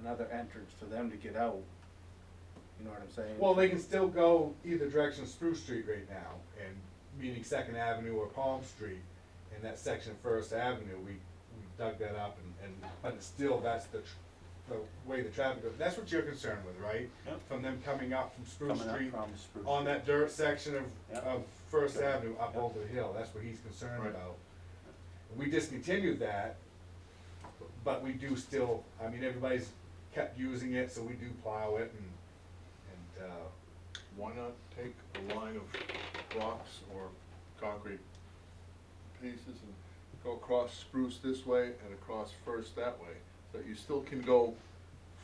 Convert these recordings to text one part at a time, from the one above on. another entrance for them to get out. You know what I'm saying? Well, they can still go either direction Spruce Street right now, and meaning Second Avenue or Palm Street, and that section of First Avenue, we, we dug that up and, and, but still, that's the, tr- the way the traffic goes, that's what you're concerned with, right? Yep. From them coming up from Spruce Coming up Street, from Spruce. on that dirt section of, Yep. of First Yep. Avenue up Yep. over the hill, that's what he's concerned Right. about. We discontinued that, but we do still, I mean, everybody's kept using it, so we do plow it and, and, uh, Why not take a line of rocks or concrete pieces and go across Spruce this way and across First that way? So that you still can go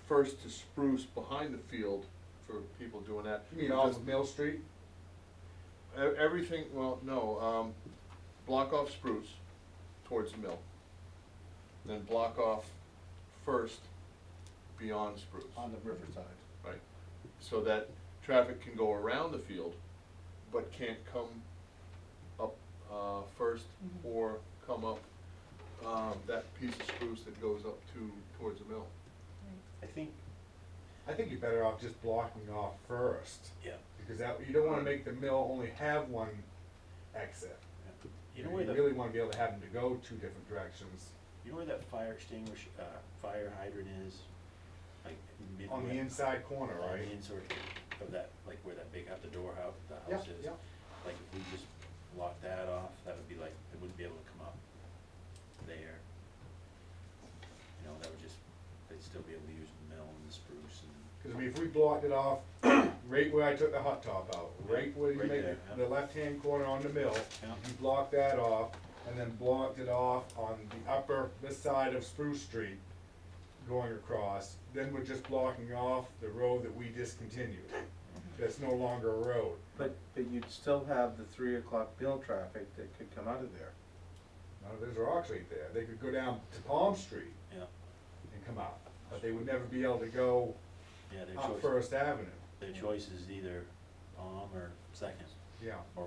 First to Spruce behind the field for people doing that. You mean off Just- of Mill Street? E- Everything, well, no, um, block off Spruce towards the mill. Then block off First beyond Spruce. On the riverside. Right, so that traffic can go around the field, but can't come up, uh, first or come up, um, that piece of spruce that goes up to, towards the mill. I think, I think you're better off just blocking off first, yeah, because that, you don't wanna make the mill only have one exit. yeah. You you know where the, really wanna be able to have them to go two different directions, you know where that fire extinguish, uh, fire hydrant is? Like midway. on the inside corner, on the right? inside of that, like where that big, out the door, how the Yeah, house is. yeah. Like if we just lock that off, that would be like, it wouldn't be able to come up there. You know, that would just, they'd still be able to use the mill and the spruce and, Cause I mean, if we blocked it off, right where I took the hot top out, right where you Right make there, the- yeah. the left-hand corner on the mill, Yeah. you block that off, and then blocked it off on the upper, this side of Spruce Street, going across, then we're just blocking off the road that we discontinued, Mm-hmm. that's no longer a road. But, but you'd still have the three o'clock bill traffic that could come out of there. None of those rocks right there, they could go down to Palm Street yeah, and come out, but they would never be able to go yeah, their up choice, First Avenue, their choice is either palm or second, yeah. or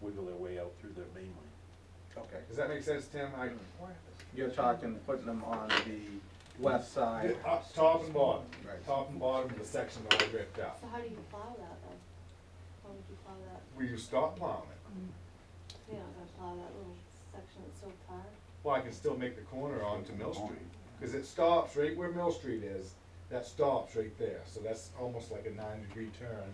wiggle their way out through their main lane. Okay. Does that make sense, Tim? I, You're talking putting them on the west side. Up, uh, top and bottom, Right. top and bottom of the section that I ripped out. So how do you plow that then? How would you plow that? Will you stop plowing it? You're not gonna plow that little section that's so far? Well, I can still make the corner onto Mill Street, cause it stops right where Mill Street is, that stops right there, so that's almost like a nine degree turn,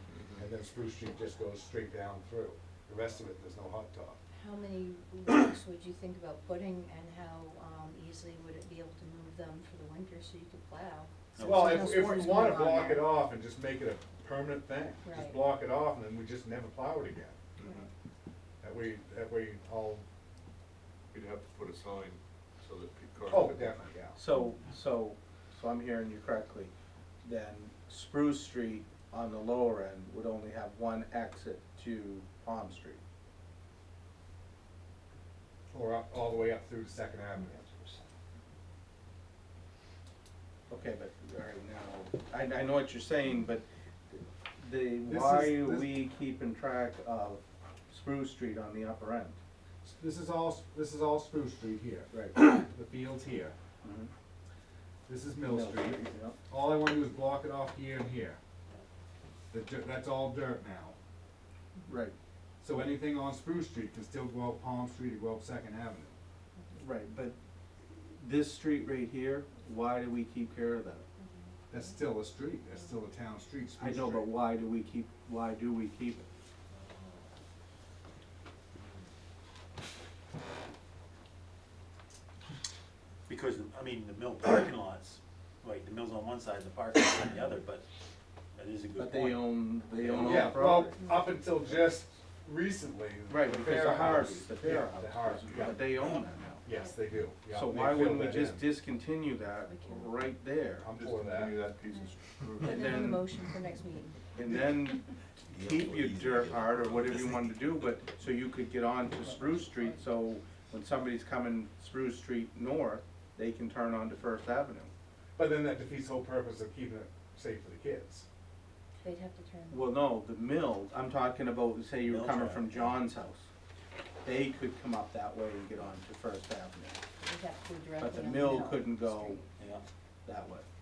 and then Spruce Street just goes straight down through. The rest of it, there's no hot top. How many rocks would you think about putting and how, um, easily would it be able to move them for the winter so you could plow? So Well, if, there's no if we sports wanna going on block it there. off and just make it a permanent thing, just Right. block it off and then we just never plow it again. Right. That way, that way all, You'd have to put a sign so that people. oh, definitely, yeah. So, so, so I'm hearing you correctly, then Spruce Street on the lower end would only have one exit to Palm Street. Or up, all the way up through Second Avenue. Okay, but, all right, now, I, I know what you're saying, but the, This why is- are this- we keeping track of Spruce Street on the upper end? This is all, this is all Spruce Street here, Right. the field's here, this is Mm-hmm. Mill Mill Street, yep. all I wanna do is block it off here and here. The dirt, that's all dirt now, Right, so anything on Spruce Street can still go up Palm Street or go up Second Avenue. right, but this street right here, why do we keep care of that? That's still a street, that's still a town street, I Spruce Street. know, but why do we keep, why do we keep it? Because, I mean, the mill parking lots, like, the mill's on one side, the parking lot's on the other, but that is a good But they point. own, they own all Yeah, the well, property. up until just recently. Right, the because Fair the Harveys, House- the yeah, Fair The House, Harveys, yeah. but they own that Yes, they do. now. Yeah, So they why filled wouldn't we that just in. discontinue that We can. right there? I'm Just for that. continue that piece of spruce. Put it on the then- motion for next meeting. And then keep your dirt hard or whatever you wanted to do, but, so you could get on to Spruce Street, so when somebody's coming Spruce Street north, they can turn onto First Avenue. But then that defeats the whole purpose of keeping it safe for the kids. They'd have to turn. Well, no, the mill, I'm talking about, say you were Mill coming traffic. from John's house. They could come up that way and get on to First Avenue. They'd have to go directly the on mill couldn't go Street. Yeah, that way.